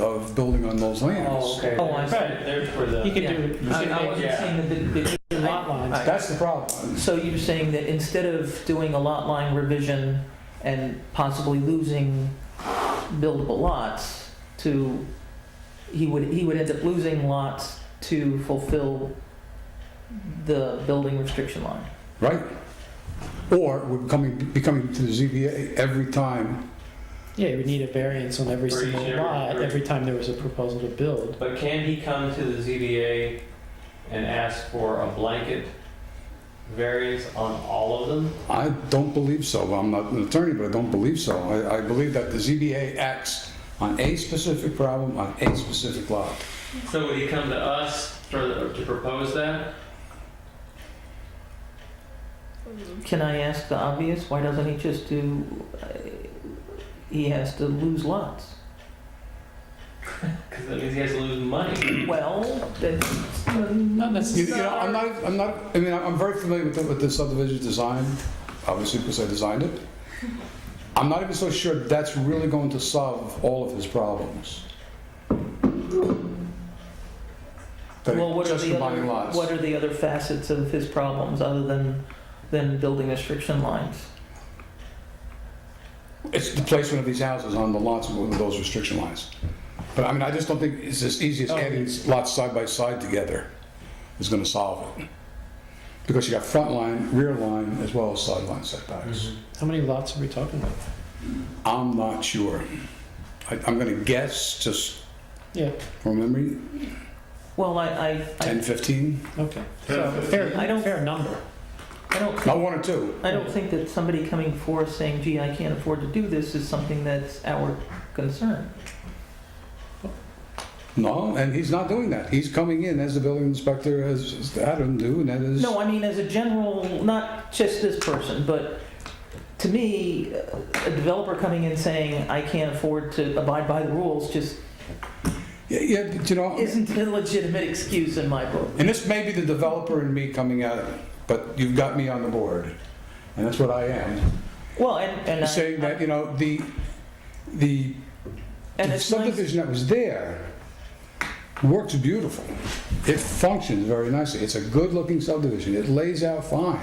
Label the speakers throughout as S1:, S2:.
S1: of building on those
S2: Oh,
S1: lands.
S2: okay.
S3: Oh, I see.
S2: Right, They're for the.
S3: You could
S2: yeah.
S3: do, I I wasn't
S2: Yeah.
S3: saying that the- the the lot lines.
S1: That's the problem.
S3: So you're saying that instead of doing a lot line revision and possibly losing buildable lots to, he would, he would end up losing lots to fulfill the building restriction line?
S1: Right? Or we're coming, becoming to the ZBA every time.
S4: Yeah, you would need a variance on every
S2: For each
S4: single
S2: area,
S4: lot,
S2: right.
S4: every time there was a proposal to build.
S2: But can he come to the ZBA and ask for a blanket variance on all of them?
S1: I don't believe so. I'm not an attorney, but I don't believe so. I, I believe that the ZBA acts on a specific problem, on a specific lot.
S2: So would he come to us for, the- to propose that?
S3: Can I ask the obvious? Why doesn't he just do, uh, he has to lose lots?
S2: Because that means he has to lose money.
S3: Well, that's
S1: You,
S4: Not necessarily.
S1: you know, I'm not, I'm not, I mean, I'm very familiar with the, with the subdivision design, obviously because I designed it. I'm not even so sure that's really going to solve all of his problems. But
S3: Well, what are
S1: just
S3: the other,
S1: combining lots.
S3: what are the other facets of his problems other than, than building restriction lines?
S1: It's the placement of these houses on the lots with those restriction lines. But I mean, I just don't think it's as easy
S3: Oh,
S1: as adding lots side by side together is gonna solve it. Because you got front line, rear line, as well as sideline setbacks.
S4: How many lots are we talking about?
S1: I'm not sure. I, I'm going to guess, just
S4: Yeah,
S1: from memory,
S3: Well, I, I,
S1: 10,
S3: I
S1: 15?
S4: okay. So, fair,
S3: I don't-
S4: fair number.
S3: I don't,
S1: Not one or two.
S3: I don't think that somebody coming forth saying, gee, I can't afford to do this is something that's our concern.
S1: No, and he's not doing that. He's coming in as the building inspector, as as Adam do, and that is.
S3: No, I mean, as a general, not just this person, but to me, a developer coming in saying, I can't afford to abide by the rules just
S1: Yeah, Yeah, but you know,
S3: isn't a legitimate excuse in my book.
S1: and this may be the developer in me coming out of it, but you've got me on the board, and that's what I am.
S3: Well, and, and I.
S1: Saying that, you know, the, the
S3: and
S1: the
S3: it's nice-
S1: subdivision that was there works beautiful. It functions very nicely. It's a good-looking subdivision. It lays out fine.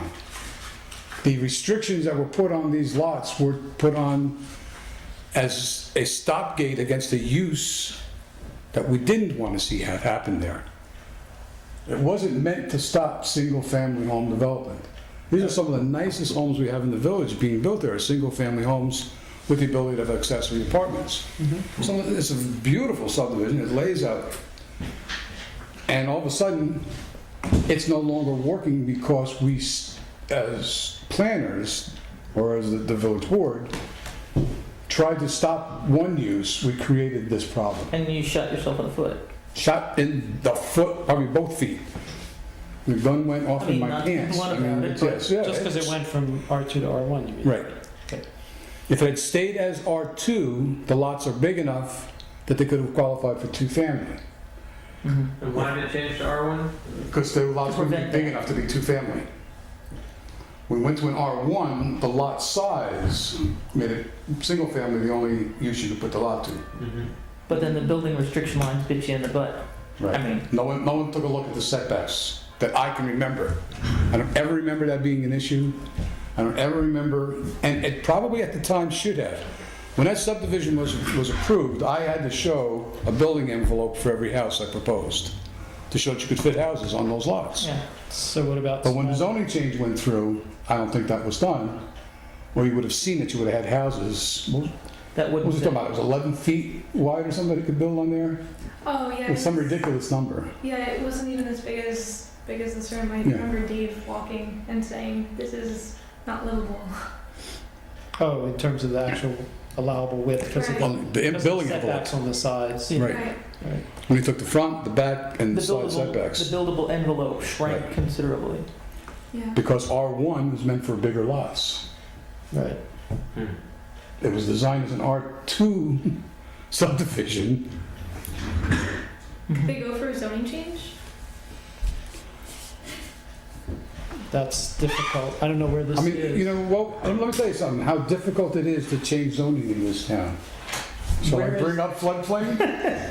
S1: The restrictions that were put on these lots were put on as a stopgate against a use that we didn't want to see have happened there. It wasn't meant to stop single-family home development. These are some of the nicest homes we have in the village being built there, are single-family homes with the ability to have accessory apartments. So it's a beautiful subdivision, it lays out. And all of a sudden, it's no longer working because we, s- as planners, or as the- the village board, tried to stop one use, we created this problem
S3: And you shot yourself in the foot.
S1: shot in the foot, probably both feet. The gun went
S3: I
S1: off in
S3: mean,
S1: my
S3: not-
S1: pants.
S3: one
S1: I mean,
S3: about it,
S1: it's-
S3: but
S1: yes, yeah,
S4: Just because it
S1: it's-
S4: went from R2 to R1, you mean?
S1: Right.
S4: Okay.
S1: If it had stayed as R2, the lots are big enough that they could have qualified for two-family.
S2: And why did it change to R1?
S1: Because the lots
S3: To
S1: wouldn't
S3: prevent
S1: be big
S3: that.
S1: enough to be two-family. We went to an R1, the lot size made it, single-family, the only use you could put the lot to.
S3: Mm-hmm. But then the building restriction lines bit you in the butt. I mean,
S1: No one, no one took a look at the setbacks that I can remember. I don't ever remember that being an issue. I don't ever remember, and it probably at the time should have. When that subdivision was, was approved, I had to show a building envelope for every house I proposed to show that you could fit houses on those lots.
S3: yeah.
S4: So what about?
S1: But when the
S4: small-
S1: zoning change went through, I don't think that was done, or you would have seen that you would have had houses. What
S3: That
S1: was
S3: wouldn't
S1: it talking about? It was 11 feet wide or something that it could build on there?
S5: Oh yeah,
S1: It was some
S5: it's-
S1: ridiculous number.
S5: yeah. It wasn't even as big as big as this room. I
S1: Yeah.
S5: remember Dave walking and saying, "This is not livable."
S4: Oh, in terms of the actual allowable width, because of
S5: Right.
S1: Well,
S4: the.
S1: the
S4: because of the
S1: building envelope.
S4: Setbacks on the sides.
S3: Yeah.
S1: Right. When you took the front, the back, and
S3: the
S1: the side
S3: buildable,
S1: setbacks,
S3: the buildable envelope shrank
S1: Right.
S3: considerably.
S5: Yeah.
S1: because R1 was meant for bigger lots.
S4: Right.
S3: Hmm.
S1: It was designed as an R2 subdivision.
S5: They go for a zoning change.
S4: That's difficult. I don't know where this
S1: I mean, you
S4: is.
S1: know, well, let me tell you something, how difficult it is to change zoning in this town. Shall I
S3: Where is-
S1: bring up floodplain?